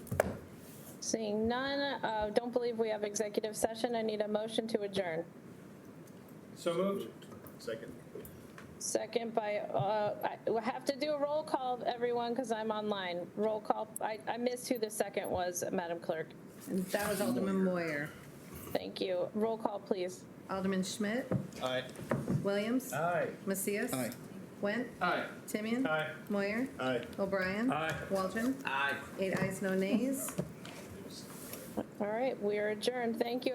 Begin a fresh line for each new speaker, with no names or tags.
Seeing none, uh, don't believe we have executive session. I need a motion to adjourn.
So moved.
Second.
Second by, uh, I we'll have to do a roll call, everyone, because I'm online. Roll call, I I missed who the second was, Madam Clerk.
And that was Alderman Moyer.
Thank you. Roll call, please.
Alderman Schmidt,
Aye.
Williams,
Aye.
Macias.
Aye.
Went,
Aye.
Timian.
Aye.
Moyer,
Aye.
O'Brien.
Aye.
Waldron.
Aye.
Eight ayes, no nays.
All right, we are adjourned. Thank you.